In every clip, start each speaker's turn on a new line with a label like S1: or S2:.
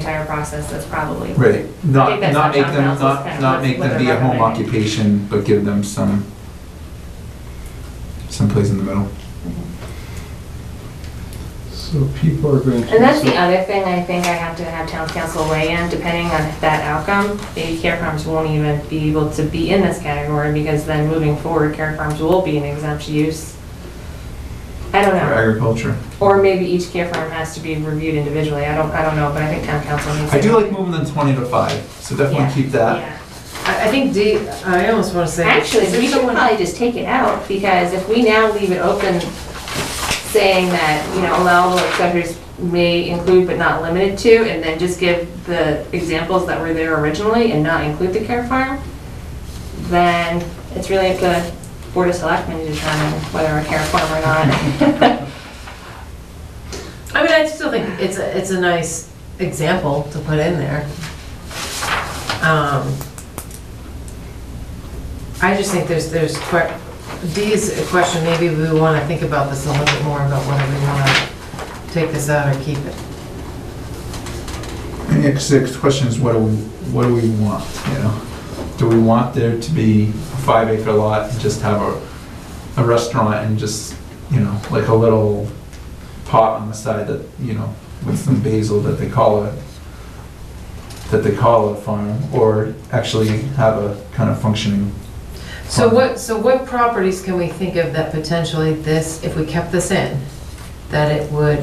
S1: entire process, that's probably.
S2: Right,
S1: I
S2: not,
S1: think that's
S2: not
S1: what
S2: make
S1: John
S2: them,
S1: Council's kind
S2: not,
S1: of
S2: not
S1: what's-
S2: make
S1: what
S2: them be
S1: they're
S2: a home
S1: recommending.
S2: occupation, but give them some, someplace in the middle.
S3: So people are going to.
S1: And that's the other thing I think I have to have town council weigh in, depending on that outcome, the care farms won't even be able to be in this category, because then moving forward, care farms will be an exempt use. I don't
S2: For
S1: know,
S2: agriculture.
S1: or maybe each care farm has to be reviewed individually, I don't, I don't know, but I think town council needs to.
S2: I do like moving them twenty to five, so
S1: Yeah,
S2: definitely keep that.
S1: yeah.
S4: I, I think D, I almost want to say.
S1: Actually, we
S4: is there
S1: should
S4: someone-
S1: probably just take it out, because if we now leave it open, saying that, you know, allowable accessories may include but not limited to, and then just give the examples that were there originally and not include the care farm, then it's really up to Board of Selectmen to determine whether a care farm or not.
S4: I mean, I still think it's, a it's a nice example to put in there. Um, I just think there's, there's, que- D is a question, maybe we want to think about this a little bit more about whether we want to take this out or keep it.
S2: And the sixth question is, what do we, what do we want, you know? Do we want there to be a five acre lot and just have a, a restaurant and just, you know, like a little pot on the side that, you know, with some basil that they call it, that they call a farm, or actually have a kind of functioning
S4: So what, so what properties can we think of that potentially this, if we kept this in, that it would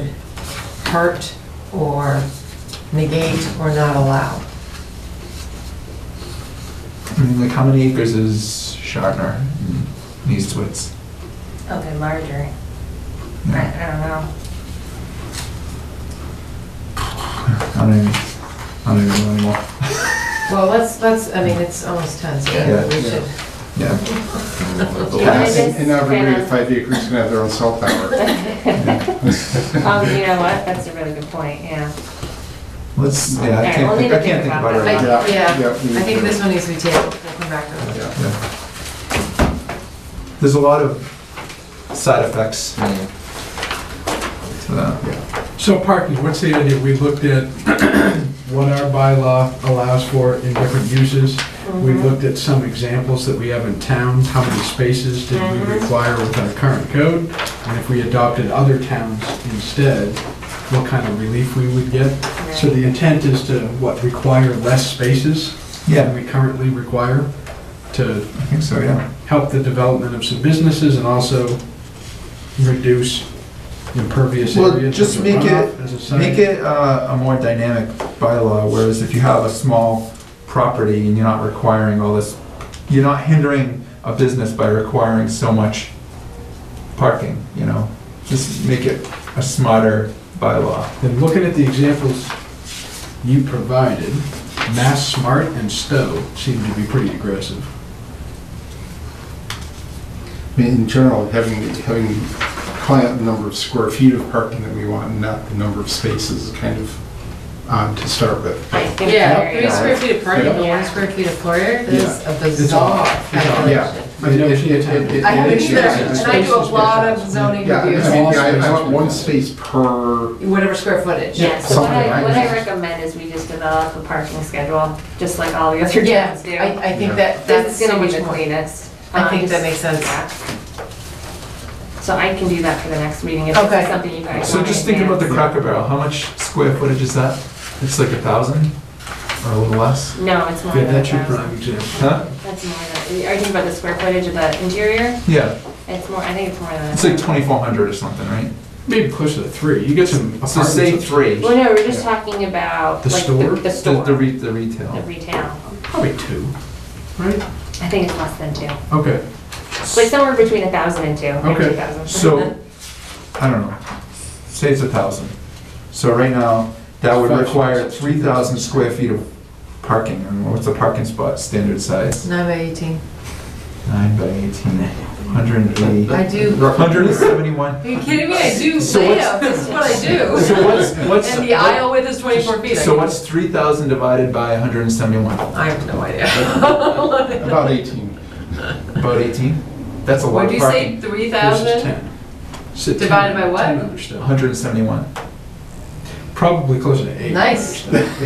S4: hurt or negate or not allow?
S2: I mean, like, how many acres is Shatner in East Woods?
S1: Okay, larger, I
S2: Yeah,
S1: I don't know.
S2: I don't even, I don't even know anymore.
S4: Well, let's, let's, I mean, it's almost 10, so
S2: Yeah.
S4: maybe we should.
S2: Yeah,
S1: I
S2: Yes.
S3: And
S1: just
S3: and every
S1: kinda-
S3: five acres is gonna have their own cell tower.
S1: Um, you know what, that's a really good point, yeah.
S2: let's, yeah, I
S1: Okay, we'll
S2: can't, think-
S1: need
S2: I
S1: to
S2: can't think about it right now.
S4: I- Yeah,
S3: yeah, we
S4: I think
S3: should.
S4: this one needs to be tabled, we'll come back to it.
S3: Yeah.
S2: Yeah. There's a lot of side effects to that.
S5: So parking, what's the idea? We looked at what our bylaw allows for in different uses. We looked at some examples that we have in town, how many spaces did we
S1: Mhm.
S5: require with our current code? And if we adopted other towns instead, what kind of relief we would get? So the intent is to, what, require less spaces than
S2: Yeah,
S5: we currently require to
S2: I think so, yeah.
S5: help the development of some businesses and also reduce impervious
S2: Well,
S5: areas.
S2: just
S5: as a
S2: make it-
S5: runoff, as a site.
S2: Make it uh, a more dynamic bylaw, whereas if you have a small property and you're not requiring all this, you're not hindering a business by requiring so much parking, you know? Just make it a smarter bylaw.
S5: And looking at the examples you provided, Mass Smart and Stowe seem to be pretty aggressive.
S3: I mean, in general, having, having client the number of square feet of parking that we want, and not the number of spaces, is kind of odd to start with.
S1: I think
S4: Yeah,
S1: there you
S4: three
S1: go.
S4: square feet of parking, but
S1: Yeah.
S4: one square feet of floor area, that's a
S5: odd.
S4: bizarre
S5: It's odd.
S3: Yeah.
S4: calculation.
S5: I've never seen it.
S4: I haven't
S3: It is-
S4: either,
S3: it's-
S4: and I do a lot of zoning
S3: Yeah, I mean,
S4: reviews,
S3: I I want one space per,
S4: whatever square footage.
S1: Yeah, so what
S3: Something
S1: I,
S3: like
S1: what I
S3: that.
S1: recommend is we just develop a parking schedule, just like all the other
S4: Yeah,
S1: towns do.
S4: I, I think
S3: Yeah.
S4: that, that's
S1: This is
S4: so
S1: gonna be
S4: much
S1: the
S4: more.
S1: cleanest.
S4: I think
S1: Um,
S4: that makes sense.
S1: yeah. So I can do that for the next meeting, if
S4: Okay.
S1: it's something you guys want.
S2: So just think about the Cracker Barrel, how much square footage is that? It's like a thousand or a little less?
S1: No, it's more
S5: Yeah,
S1: than a
S5: that's your
S1: thousand.
S5: prime example.
S2: Huh?
S1: That's more than, are you thinking about the square footage of the interior?
S2: Yeah,
S1: It's more, I think it's more than. a
S2: it's like
S1: thousand.
S2: twenty-four hundred or something, right?
S5: Maybe closer to three. You get some
S2: So say
S5: apartments,
S2: three,
S1: Well, no, we're just talking about.
S5: The
S1: like,
S5: store?
S1: The
S2: the,
S1: store,
S2: the
S1: the
S2: re- the retail.
S1: retail.
S5: probably two, right?
S1: I think it's less than two,
S5: Okay,
S1: like somewhere between a thousand and two, maybe
S5: Okay.
S1: two thousand.
S2: So, I don't know, say it's a thousand. So right now, that would
S5: Five
S2: require
S5: spots.
S2: three thousand square feet of parking, and what's a parking spot standard size?
S4: Nine by 18.
S2: Nine by eighteen, hundred and eighty.
S4: I do-
S2: Hundred and seventy-one.
S4: Are you kidding me? I do
S2: So what's-
S4: layouts, this is what I do.
S2: So what's, what's?
S4: And the aisle width is 24 feet. I
S2: So
S4: can-
S2: what's three thousand divided by hundred and seventy-one?
S4: I have no idea.
S3: about 18.
S2: About eighteen? That's a lot
S4: Would
S2: of
S4: you say
S2: parking.
S5: versus
S4: 3,000?
S5: ten. Sit ten-
S4: Divided by what?
S5: Ten under Stowe.
S2: Hundred and seventy-one.
S5: Probably closer to eight.
S4: Nice.
S5: under Stowe.